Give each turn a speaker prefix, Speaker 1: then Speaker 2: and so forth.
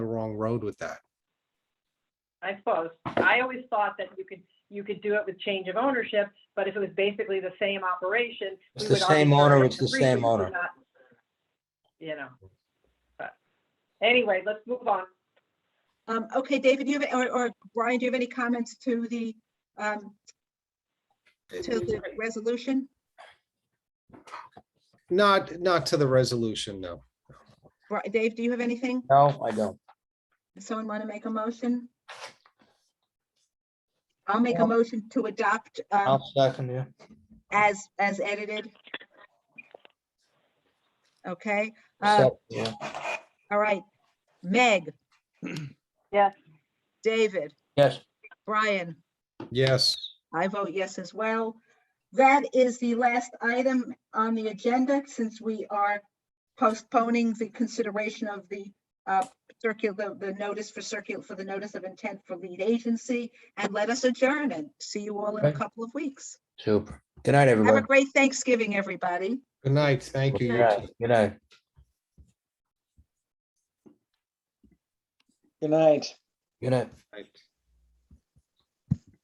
Speaker 1: road with that.
Speaker 2: I suppose. I always thought that you could, you could do it with change of ownership, but if it was basically the same operation.
Speaker 3: It's
Speaker 2: we
Speaker 3: the
Speaker 2: would already
Speaker 3: same owner,
Speaker 2: already
Speaker 3: it's the
Speaker 2: agree
Speaker 3: same
Speaker 2: we do
Speaker 3: owner.
Speaker 2: not- You know. But Anyway, let's move on.
Speaker 4: Um, okay, David, do you have, or, or Brian, do you have any comments to the, um, to the resolution?
Speaker 1: Not, not to the resolution, no.
Speaker 4: Bri- Dave, do you have anything?
Speaker 3: No, I don't.
Speaker 4: Someone want to make a motion? I'll make a motion to adopt, um,
Speaker 3: I'll second you.
Speaker 4: as, as edited. Okay, uh,
Speaker 3: Second you.
Speaker 4: all right. Meg?
Speaker 2: Yes.
Speaker 4: David,
Speaker 3: Yes,
Speaker 4: Brian?
Speaker 1: Yes,
Speaker 4: I vote yes as well. That is the last item on the agenda, since we are postponing the consideration of the uh, circular, the notice for circular, for the notice of intent for lead agency, and let us adjourn and see you all in a
Speaker 3: Okay.
Speaker 4: couple of weeks.
Speaker 3: super. Good night,
Speaker 4: Have a
Speaker 3: everybody.
Speaker 4: great Thanksgiving, everybody.
Speaker 1: good night, thank you.
Speaker 3: Good
Speaker 1: you
Speaker 3: night.
Speaker 1: too.
Speaker 5: Good
Speaker 3: Good night.
Speaker 5: night.
Speaker 3: Good night.
Speaker 1: Right.